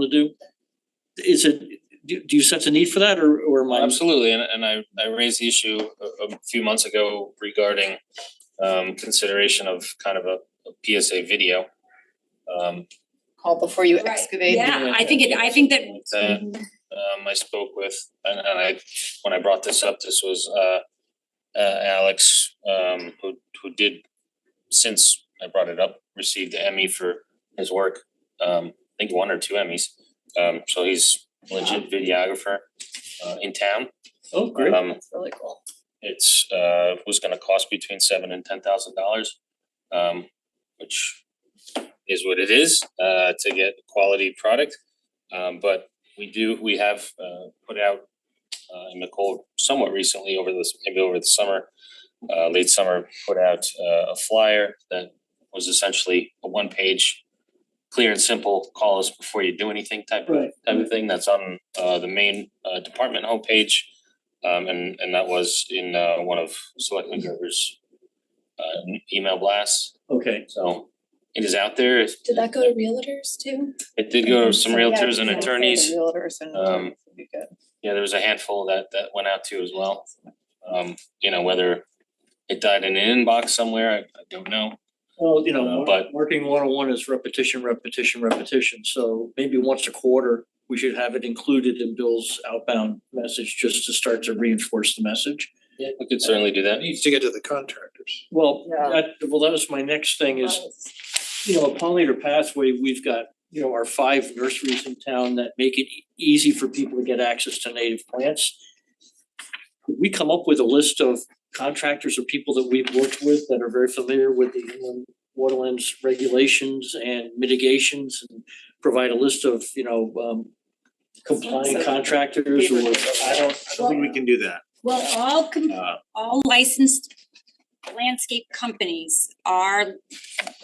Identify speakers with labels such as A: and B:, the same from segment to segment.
A: to do? Is it, do do you sense a need for that or or am I?
B: Absolutely, and and I I raised the issue a a few months ago regarding um consideration of kind of a a PSA video. Um
C: call before you
D: Right,
C: excavate.
D: Yeah, I think it, I think that,
B: that um I spoke with and and I, when I brought this up, this was uh uh Alex um who who did since I brought it up, received the Emmy for his work. Um I think one or two Emmys. Um so he's legit videographer uh in town.
A: Oh, great.
B: Um
C: It's really cool.
B: it's uh was gonna cost between seven and ten thousand dollars. Um which is what it is uh to get quality product. Um but we do, we have uh put out uh and Nicole somewhat recently over this, maybe over the summer, uh late summer, put out uh a flyer that was essentially a one page clear and simple, call us before you do anything type of
A: Right.
B: type of thing that's on uh the main uh department homepage. Um and and that was in uh one of Selectman Gerber's uh email blasts,
A: Okay,
B: so it is out there. It
E: Did that go to realtors too?
B: did go to some
C: Yeah,
B: realtors and
C: yeah,
B: attorneys.
C: Realtors and
B: um,
C: attorneys would be good.
B: Yeah, there was a handful that that went out to as well. Um, you know, whether it died in an inbox somewhere, I I don't know.
A: well, you know,
B: Uh, but-
A: marketing one on one is repetition, repetition, repetition, so maybe once a quarter. We should have it included in Bill's outbound message just to start to reinforce the message.
B: Yeah. We could certainly do that.
F: needs to get to the contractors.
A: Well,
C: Yeah.
A: that, well, that was my next thing is you know, a pollinator pathway, we've got, you know, our five nurseries in town that make it e- easy for people to get access to native plants. Could we come up with a list of contractors or people that we've worked with that are very familiar with the inland waterlands regulations and mitigations and provide a list of, you know, um compliant contractors or, I don't,
F: I don't think we can do that.
D: well, all com-
F: Uh,
D: all licensed landscape companies are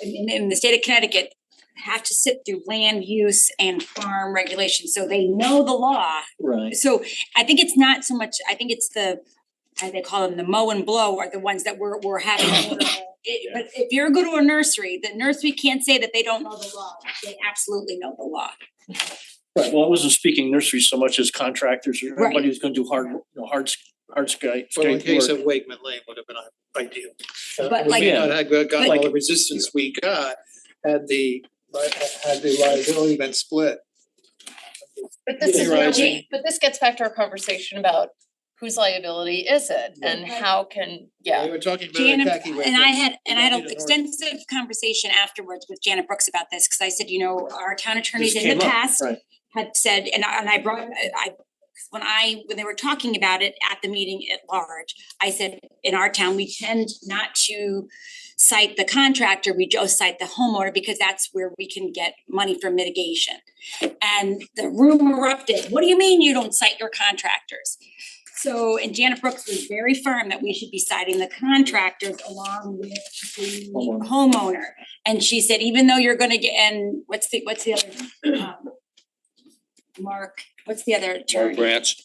D: in in the state of Connecticut have to sit through land use and farm regulations, so they know the law.
A: right,
D: So I think it's not so much, I think it's the, I they call them the mow and blow are the ones that we're we're having. It- but if you're go to a nursery, the nursery can't say that they don't know the law, they absolutely know the law.
A: right. Well, I wasn't speaking nurseries so much as contractors or
D: Right.
A: anybody who's gonna do hard, you know, hard, sc- hard sky,
F: Well, in
A: scape
F: case
A: work.
F: of Wakeman Lane would have been ideal. Uh,
D: But
F: we
D: like-
F: may not have got got all
A: Like-
F: the resistance we got had the li- had the liability been split.
C: But this is,
F: You're
C: where
F: right.
C: we- but this gets back to our conversation about whose liability is it and
D: Right.
C: how can, yeah.
F: We were talking about
D: Janet,
F: Kentucky with
D: and I
F: this.
D: had, and I had an
F: Kentucky to North.
D: extensive conversation afterwards with Janet Brooks about this, cause I said, you know, our town attorneys
A: This
D: in
A: came
D: the
A: up,
D: past
A: right.
D: had said, and I, and I brought, I, I- when I, when they were talking about it at the meeting at large, I said, in our town, we tend not to cite the contractor, we just cite the homeowner, because that's where we can get money for mitigation. And the room erupted, what do you mean you don't cite your contractors? So, and Janet Brooks was very firm that we should be citing the contractors along with the
A: Homeowner.
D: homeowner. And she said, even though you're gonna get, and what's the, what's the other, um, Mark, what's the other attorney?
B: Branch.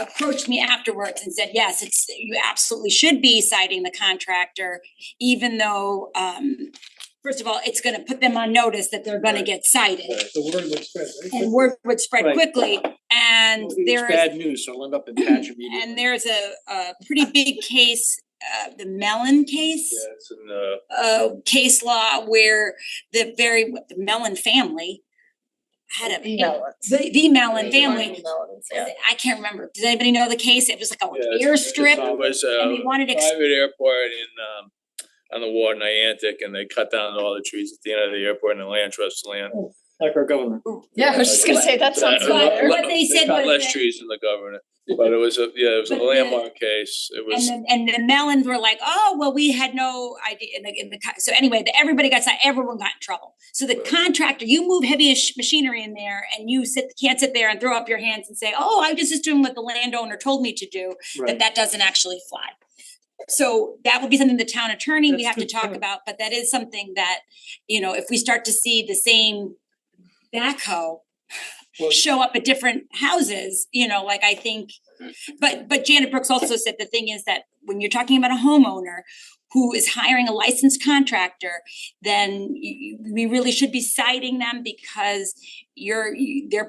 D: approached me afterwards and said, yes, it's, you absolutely should be citing the contractor, even though, um, first of all, it's gonna put them on notice that they're gonna
F: Right.
D: get cited.
F: The word was spread, right?
D: And word would spread
A: Right.
D: quickly, and
A: Well,
D: there
A: It's
D: is,
A: bad news, so I'll end up in patch immediately.
D: and there's a, a pretty big case, uh, the Mellon case
F: Yeah, it's in the.
D: uh case law where the very, the Mellon family had a, the the Mellon family,
C: Melons, yeah.
D: I can't remember, does anybody know the case? It was like
G: Yeah,
D: a
G: it's-
D: airstrip
G: It was
D: and they
G: a
D: wanted ex-
G: private airport in um on the water Niantic and they cut down all the trees at the end of the airport and the land trust land.
A: Like our governor.
C: Yeah, I was just gonna say, that sounds
G: Uh,
C: familiar.
D: what they said was
G: cut less
D: that-
G: trees than the governor, but it was a, yeah, it was a
D: But the-
G: landmark case. It was,
D: And then, and the Mellons were like, oh, well, we had no idea in the, in the, co- so anyway, the, everybody got, si- everyone got in trouble. So the contractor, you move heavy ish machinery in there and you sit, can't sit there and throw up your hands and say, oh, I was just doing what the landowner told me to do, that that doesn't actually fly. So that would be something the town attorney, we
A: That's
D: have to
A: good
D: talk
A: point.
D: about, but that is something that, you know, if we start to see the same backhoe
F: Well,
D: show up at different houses, you know, like I think. But but Janet Brooks also said the thing is that when you're talking about a homeowner who is hiring a licensed contractor, then you you- we really should be citing them because you're you- they're